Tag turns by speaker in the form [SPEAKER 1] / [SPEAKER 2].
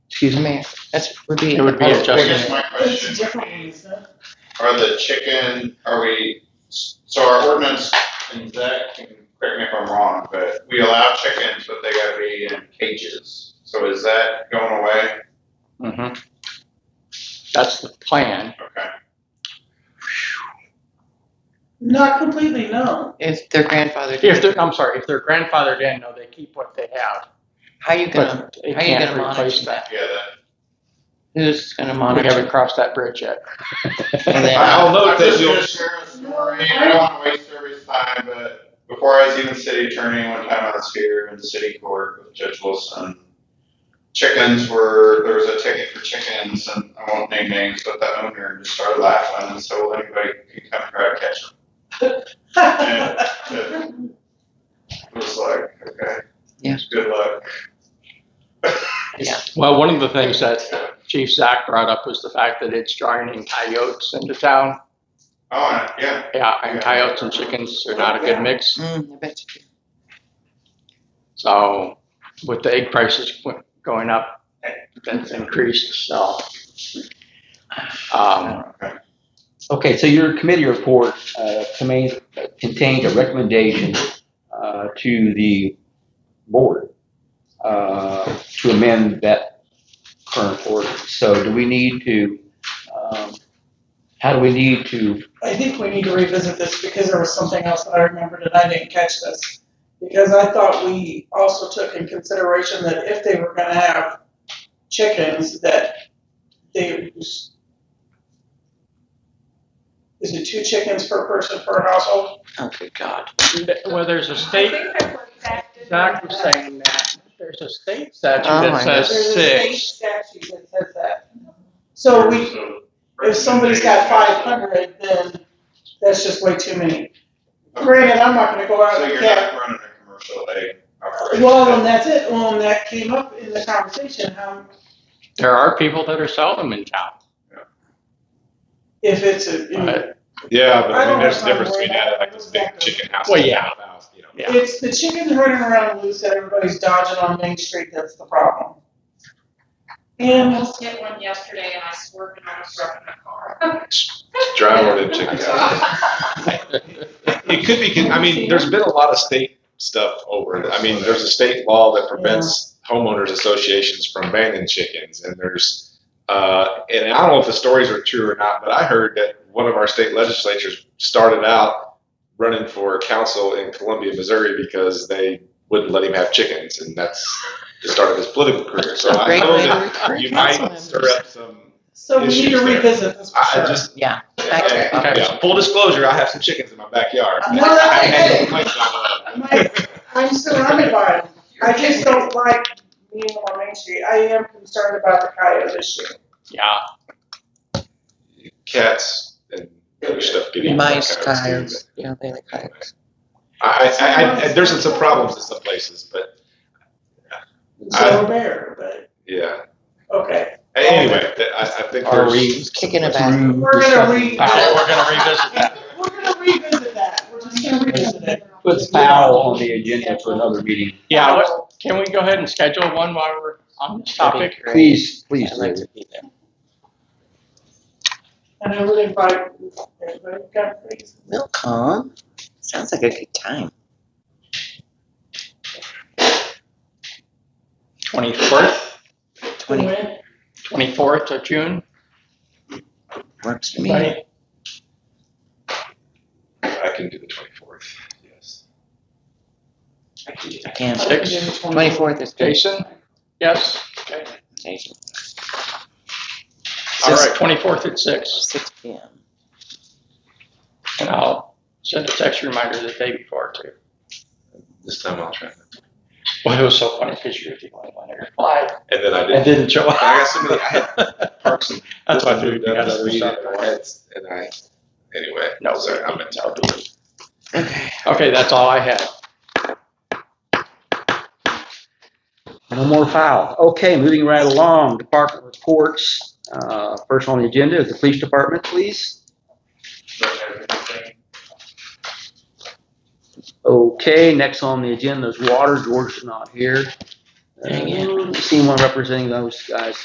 [SPEAKER 1] Excuse me, that's, would be.
[SPEAKER 2] It would be
[SPEAKER 3] I guess
[SPEAKER 2] adjustment.
[SPEAKER 3] my question
[SPEAKER 4] It's a
[SPEAKER 3] would
[SPEAKER 4] different
[SPEAKER 3] be,
[SPEAKER 4] one, sir.
[SPEAKER 3] are the chicken, are we, so our ordinance, and Zach can correct me if I'm wrong, but we allow chickens, but they gotta be in cages. So is that going away?
[SPEAKER 2] Mhm. That's the plan.
[SPEAKER 3] Okay.
[SPEAKER 4] Not completely, no.
[SPEAKER 1] It's their grandfather.
[SPEAKER 2] If they're, I'm sorry, if they're grandfathered in, no, they keep what they have,
[SPEAKER 1] How you gonna,
[SPEAKER 2] but they
[SPEAKER 1] how you
[SPEAKER 2] can't
[SPEAKER 1] gonna
[SPEAKER 2] replace
[SPEAKER 1] monitor
[SPEAKER 2] that.
[SPEAKER 3] Yeah,
[SPEAKER 1] who's gonna
[SPEAKER 2] We haven't
[SPEAKER 1] monitor?
[SPEAKER 2] crossed that bridge yet.
[SPEAKER 1] And
[SPEAKER 3] that.
[SPEAKER 1] then-
[SPEAKER 4] uh,
[SPEAKER 3] I'll note that
[SPEAKER 5] you'll-
[SPEAKER 3] I'm just gonna share a story, I don't wanna waste everybody's time, but before I was even city attorney, one time I was here in the city court with Judge Wilson. Chickens were, there was a ticket for chickens, and I won't name names, but the owner just started laughing, and so well, anybody can come try to catch them. And It was like, okay.
[SPEAKER 1] Yeah.
[SPEAKER 3] Good luck.
[SPEAKER 2] Well, one of the things that Chief Zach brought up was the fact that it's drawing in coyotes into town.
[SPEAKER 3] Oh, and- yeah,
[SPEAKER 2] Yeah, and coyotes and chickens are not a good mix.
[SPEAKER 1] Mm, I bet you-
[SPEAKER 2] So with the egg prices go- going up, that's increased, so. Um,
[SPEAKER 3] okay.
[SPEAKER 5] Okay, so your committee report uh, contains contains a recommendation uh, to the board uh, to amend that current ordinance. So do we need to, um, how do we need to,
[SPEAKER 4] I think we need to revisit this because there was something else that I remembered and I didn't catch this. Because I thought we also took in consideration that if they were gonna have chickens, that they was. Is it two chickens per person per household?
[SPEAKER 1] Oh, good God.
[SPEAKER 2] well, there's a state, Zach was saying that, there's a state statute
[SPEAKER 1] Oh
[SPEAKER 2] that
[SPEAKER 1] my
[SPEAKER 4] There's
[SPEAKER 2] says
[SPEAKER 4] a state
[SPEAKER 2] six.
[SPEAKER 4] statute that says that. So we, if somebody's got five hundred, then that's just way too many. Granted, I'm not gonna go out
[SPEAKER 3] So
[SPEAKER 4] and
[SPEAKER 3] you're
[SPEAKER 4] get,
[SPEAKER 3] not running a commercial egg operation.
[SPEAKER 4] well, and that's it, well, and that came up in the conversation, how,
[SPEAKER 2] There are people that are seldom in town.
[SPEAKER 4] if it's a, you know,
[SPEAKER 2] Right.
[SPEAKER 6] Yeah,
[SPEAKER 4] I
[SPEAKER 6] but I mean,
[SPEAKER 4] don't
[SPEAKER 6] there's a
[SPEAKER 4] know.
[SPEAKER 6] difference between that and like this big chicken house.
[SPEAKER 2] Well, yeah.
[SPEAKER 6] house, you know.
[SPEAKER 2] Yeah.
[SPEAKER 4] it's the chicken running around loose that everybody's dodging on Main Street, that's the problem.
[SPEAKER 7] I
[SPEAKER 4] And,
[SPEAKER 7] almost hit one yesterday and I swerved and I was driving my car.
[SPEAKER 6] Drive over to the chicken house. It could be, con- I mean, there's been a lot of state stuff over it. I mean, there's a state law that prevents homeowners associations from banning chickens and there's, uh, and I don't know if the stories are true or not, but I heard that one of our state legislatures started out running for council in Columbia, Missouri because they wouldn't let him have chickens and that's the start of his political career. So I
[SPEAKER 1] Great
[SPEAKER 6] know
[SPEAKER 1] way to
[SPEAKER 6] that
[SPEAKER 1] recruit
[SPEAKER 6] Uh, oh, you might
[SPEAKER 1] council
[SPEAKER 6] stir
[SPEAKER 1] members.
[SPEAKER 6] up some.
[SPEAKER 4] so we need to
[SPEAKER 6] Issues there.
[SPEAKER 4] revisit this for
[SPEAKER 6] I I
[SPEAKER 4] sure.
[SPEAKER 6] just
[SPEAKER 1] Yeah.
[SPEAKER 6] Okay.
[SPEAKER 2] Okay.
[SPEAKER 6] Yeah. Full disclosure, I have some chickens in my backyard.
[SPEAKER 4] No, that's
[SPEAKER 6] I had
[SPEAKER 4] okay.
[SPEAKER 6] no complaints on
[SPEAKER 4] My- I'm surrounded by them, I just don't like being on Main Street, I am concerned about the coyote issue.
[SPEAKER 2] Yeah,
[SPEAKER 6] that. Cats and other stuff getting.
[SPEAKER 1] Mice,
[SPEAKER 6] kinda too,
[SPEAKER 1] coyotes, yeah, they like coyotes.
[SPEAKER 6] but I, I, I, I, there's some problems in some places, but
[SPEAKER 4] So bear, but,
[SPEAKER 6] yeah.
[SPEAKER 4] okay.
[SPEAKER 6] Anyway, that- I, I think.
[SPEAKER 5] are
[SPEAKER 6] there's-
[SPEAKER 5] we?
[SPEAKER 1] Kicking a basket.
[SPEAKER 5] through
[SPEAKER 4] We're gonna
[SPEAKER 5] discussing-
[SPEAKER 4] re.
[SPEAKER 2] Powell, we're gonna revisit that.
[SPEAKER 4] We're gonna revisit that, we're just gonna revisit it.
[SPEAKER 5] Put foul on the agenda for another meeting.
[SPEAKER 2] Yeah, what- can we go ahead and schedule one while we're on this topic?
[SPEAKER 5] Please, please
[SPEAKER 1] I'd
[SPEAKER 5] do.
[SPEAKER 1] like to be there.
[SPEAKER 4] And I would invite everybody, God, please.
[SPEAKER 1] Milcom, sounds like a good time.
[SPEAKER 2] Twenty-fourth,
[SPEAKER 1] Twenty
[SPEAKER 2] twenty-fourth of June,
[SPEAKER 1] works for me.
[SPEAKER 2] right?
[SPEAKER 6] I can do the twenty-fourth, yes.
[SPEAKER 1] Can't.
[SPEAKER 2] Six,
[SPEAKER 1] Twenty-fourth is good.
[SPEAKER 2] Jason? Yes? Okay.
[SPEAKER 1] Jason.
[SPEAKER 2] All
[SPEAKER 1] Six-
[SPEAKER 2] right, twenty-fourth at six,
[SPEAKER 1] Six P M.
[SPEAKER 2] and I'll send a text reminder the day before too.
[SPEAKER 6] This time I'll try.
[SPEAKER 2] Well, it was so funny because you're the only one that replied
[SPEAKER 6] And then I
[SPEAKER 2] and
[SPEAKER 6] did.
[SPEAKER 2] didn't show
[SPEAKER 6] I
[SPEAKER 2] up.
[SPEAKER 6] got some of the, I had parks and.
[SPEAKER 2] That's why I figured you
[SPEAKER 6] I
[SPEAKER 2] got
[SPEAKER 6] just
[SPEAKER 2] other
[SPEAKER 6] read
[SPEAKER 2] stuff.
[SPEAKER 6] it, and I had- And I, anyway,
[SPEAKER 2] No,
[SPEAKER 6] sorry, I'm in.
[SPEAKER 2] no.
[SPEAKER 1] Okay.
[SPEAKER 2] Okay, that's all I had.
[SPEAKER 5] No more foul. Okay, moving right along, department reports. Uh, First on the agenda is the police department, please. Okay, next on the agenda is water. George is not here.
[SPEAKER 1] Dang it.
[SPEAKER 5] Uh, Seen one representing those guys